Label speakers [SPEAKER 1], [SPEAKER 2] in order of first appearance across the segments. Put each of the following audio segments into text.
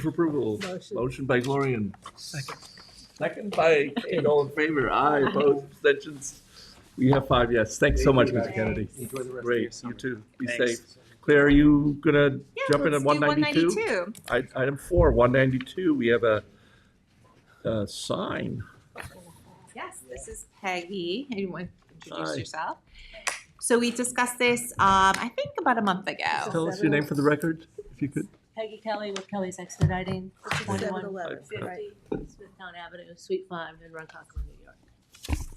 [SPEAKER 1] for approval.
[SPEAKER 2] Motion.
[SPEAKER 1] Motion by Gloria and second by Kate, all in favor, aye, opposed, abstentions. We have five yes. Thanks so much, Mr. Kennedy.
[SPEAKER 3] Enjoy the rest of your
[SPEAKER 1] Great, you
[SPEAKER 3] summer.
[SPEAKER 1] too. Be
[SPEAKER 3] Thanks.
[SPEAKER 1] safe. Claire, are you gonna
[SPEAKER 4] Yeah,
[SPEAKER 1] jump in
[SPEAKER 4] let's
[SPEAKER 1] at
[SPEAKER 4] do
[SPEAKER 1] one ninety-two?
[SPEAKER 4] 192.
[SPEAKER 1] Item four, one ninety-two, we have a, a sign.
[SPEAKER 4] Yes, this is Peggy. You want to
[SPEAKER 1] Hi.
[SPEAKER 4] introduce yourself? So we discussed this, um, I think about a month ago.
[SPEAKER 1] Tell us your name for the record, if you could.
[SPEAKER 5] Peggy Kelly with Kelly's Expediting,
[SPEAKER 2] Seven
[SPEAKER 5] 21
[SPEAKER 2] eleven, right?
[SPEAKER 5] Smithtown Avenue, Suite 5 in Runcock, New York.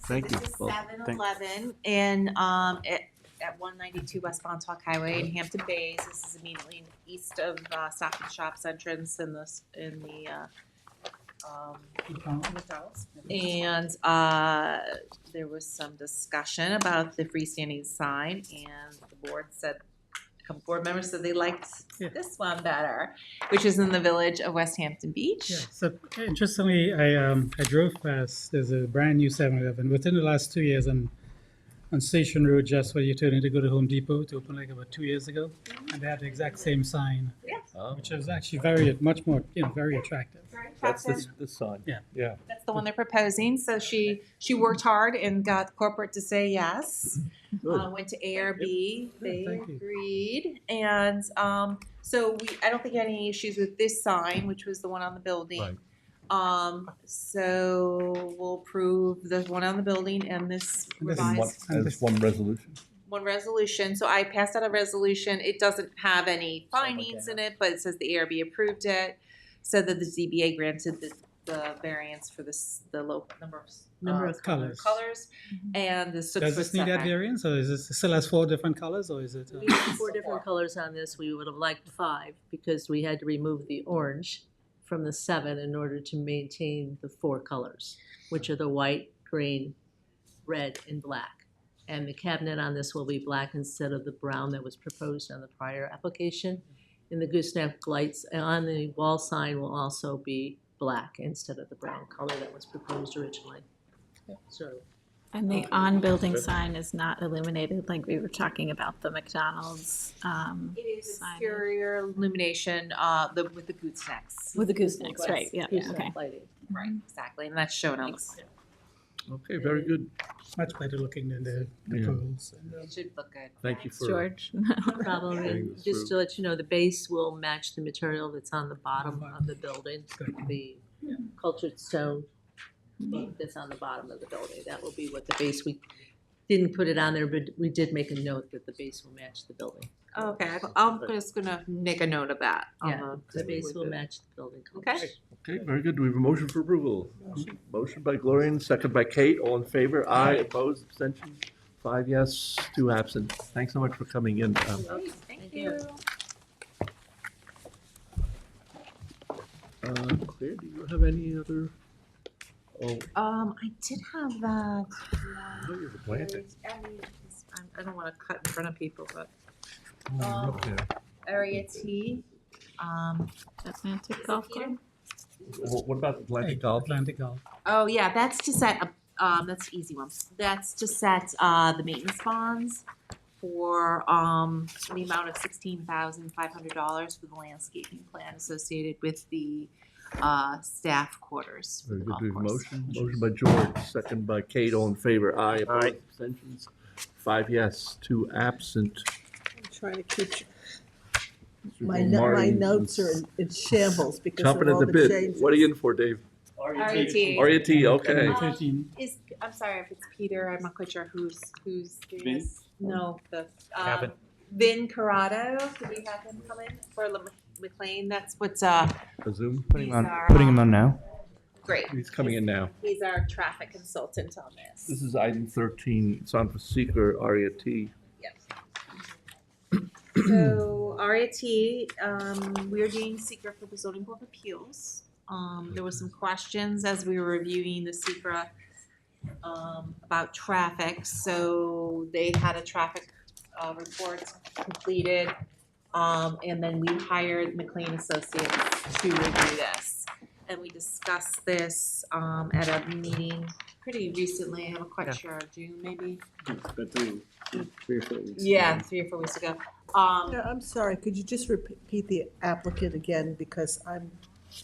[SPEAKER 1] Thank you.
[SPEAKER 4] This is
[SPEAKER 1] Well,
[SPEAKER 4] seven
[SPEAKER 1] thank-
[SPEAKER 4] eleven and, um, at, at one ninety-two West Montauk Highway in Hampton Bays. This is immediately east of, uh, Stop and Shop's entrance in this, in the, uh, um, McDonald's. And, uh, there was some discussion about the freestanding sign and the board said, a board members said they liked
[SPEAKER 6] Yeah.
[SPEAKER 4] this one better, which is in the village of West Hampton Beach.
[SPEAKER 6] Yeah, so interestingly, I, um, I drove past, there's a brand new 7-Eleven. Within the last two years, on, on Station Road, just where you turn in to go to Home Depot, to open like about two years ago, and they had the exact same sign,
[SPEAKER 1] Oh,
[SPEAKER 6] which was actually very, much more, you know, very attractive.
[SPEAKER 1] That's this, this sign.
[SPEAKER 6] Yeah.
[SPEAKER 1] Yeah.
[SPEAKER 4] That's the one they're proposing, so she, she worked hard and got corporate to say yes.
[SPEAKER 1] Good.
[SPEAKER 4] Uh, went to ARB, they
[SPEAKER 6] thank you.
[SPEAKER 4] agreed, and, um, so we, I don't think any issues with this sign, which was the one on the
[SPEAKER 1] Right.
[SPEAKER 4] building. Um, so we'll approve the one on the building and this
[SPEAKER 6] And this-
[SPEAKER 1] And one-
[SPEAKER 4] revised,
[SPEAKER 6] Nice.
[SPEAKER 1] and it's one resolution.
[SPEAKER 4] one resolution, so I passed out a resolution, it doesn't have any findings in it, but it says the ARB approved it. Said that the ZBA granted the, the variance for this, the low number of. s-
[SPEAKER 6] Number
[SPEAKER 4] uh,
[SPEAKER 6] of Mm-hmm. colours.
[SPEAKER 4] Colors, and the six
[SPEAKER 6] Does
[SPEAKER 4] foot
[SPEAKER 6] this need that
[SPEAKER 4] setback.
[SPEAKER 6] variance, or is this, it still has four different colors, or is it? uh,
[SPEAKER 5] We had four different colors on this, we would have liked five, because we had to remove the orange from the seven in order to maintain the four colors, which are the white, green, red, and black. And the cabinet on this will be black instead of the brown that was proposed on the prior application. And the gooseneck lights on the wall sign will also be black instead of the brown color that was proposed originally. So
[SPEAKER 7] And the on-building sign is not illuminated, like we were talking about the McDonald's, um,
[SPEAKER 4] It is
[SPEAKER 7] Signage.
[SPEAKER 4] exterior illumination, uh, the, with the goosenecks.
[SPEAKER 7] with the goosenecks, right, yeah, yeah,
[SPEAKER 5] gooseneck
[SPEAKER 7] okay.
[SPEAKER 5] lighting.
[SPEAKER 4] Right, exactly, and that's shown on the,
[SPEAKER 7] Thanks.
[SPEAKER 1] Okay, very good.
[SPEAKER 6] Much better looking than the, the
[SPEAKER 1] Yeah.
[SPEAKER 6] poles.
[SPEAKER 4] it should look good.
[SPEAKER 1] Thank you
[SPEAKER 7] Thanks,
[SPEAKER 1] for.
[SPEAKER 7] George.
[SPEAKER 5] problem,
[SPEAKER 1] Getting
[SPEAKER 5] and
[SPEAKER 1] this
[SPEAKER 5] just to let you know, the base will match the material that's on the bottom of the building,
[SPEAKER 6] Good.
[SPEAKER 5] the cultured stone that's on the bottom of the building, that will be what the base, we didn't put it on there, but we did make a note that the base will match the building.
[SPEAKER 4] Okay, I- I'm just gonna make a note of that. Uh-huh. on
[SPEAKER 5] Yeah, The base will match the building colors.
[SPEAKER 4] Okay.
[SPEAKER 1] Okay, very good. Do we have a motion for approval? Motion by Gloria and second by Kate. All in favor? Aye, opposed, abstentions? Five yes, two absent. Thanks so much for coming in. Um,
[SPEAKER 4] Great,
[SPEAKER 5] Thank
[SPEAKER 4] Thank
[SPEAKER 5] you.
[SPEAKER 4] you.
[SPEAKER 1] uh, Claire, do you have any other? Oh,
[SPEAKER 4] Um, I did have uh, that.
[SPEAKER 1] no, you have a planting.
[SPEAKER 4] I'm- I don't wanna cut in front of people, but
[SPEAKER 2] Um,
[SPEAKER 1] Oh, you're up there.
[SPEAKER 4] area T, um,
[SPEAKER 7] Atlantic Golf Club.
[SPEAKER 1] Wh- What about Atlantic Golf?
[SPEAKER 6] Atlantic Golf.
[SPEAKER 4] Oh, yeah, that's to set, up- um, that's an easy one. That's to set, uh, the maintenance bonds for, um, the amount of sixteen thousand five hundred dollars for the landscaping plan associated with the, uh, staff quarters for
[SPEAKER 1] Very
[SPEAKER 4] the
[SPEAKER 1] good.
[SPEAKER 4] golf
[SPEAKER 1] Do we have a
[SPEAKER 4] course.
[SPEAKER 1] motion? Motion by George, second by Kate. All in favor? Aye, opposed, abstentions? Five yes, two absent.
[SPEAKER 2] I'm trying to keep,
[SPEAKER 1] Mr.
[SPEAKER 2] my, no- my
[SPEAKER 1] Martin
[SPEAKER 2] notes are in- in shambles because
[SPEAKER 1] Chomping
[SPEAKER 2] of
[SPEAKER 1] at
[SPEAKER 2] all
[SPEAKER 1] the
[SPEAKER 2] the
[SPEAKER 1] bit.
[SPEAKER 2] changes.
[SPEAKER 1] What are you in for, Dave?
[SPEAKER 4] RET.
[SPEAKER 1] RET, okay.
[SPEAKER 6] Number Thirteen.
[SPEAKER 4] Is, I'm sorry if it's Peter, I'm not quite sure who's, who's doing
[SPEAKER 3] Vin?
[SPEAKER 4] this. No, the, um,
[SPEAKER 3] Cabot.
[SPEAKER 4] Vin Corrado, did we have him come in for Lam- McLean? That's what's, uh,
[SPEAKER 1] A Zoom?
[SPEAKER 4] Putting him on- These are, putting him on
[SPEAKER 3] now.
[SPEAKER 4] great.
[SPEAKER 1] He's coming in now.
[SPEAKER 4] He's our traffic consultant on this.
[SPEAKER 1] This is item thirteen, it's on for seeker, RET.
[SPEAKER 4] So RAT, um, we are doing secret for the zoning board of appeals. Um, there were some questions as we were reviewing the secret um, about traffic, so they had a traffic, uh, report completed. Um, and then we hired McLean Associates to review this. And we discussed this, um, at a meeting pretty recently, I'm not quite sure, June maybe? Yeah, three or four weeks ago. Um,
[SPEAKER 2] Yeah, I'm sorry, could you just repeat the applicant again because I'm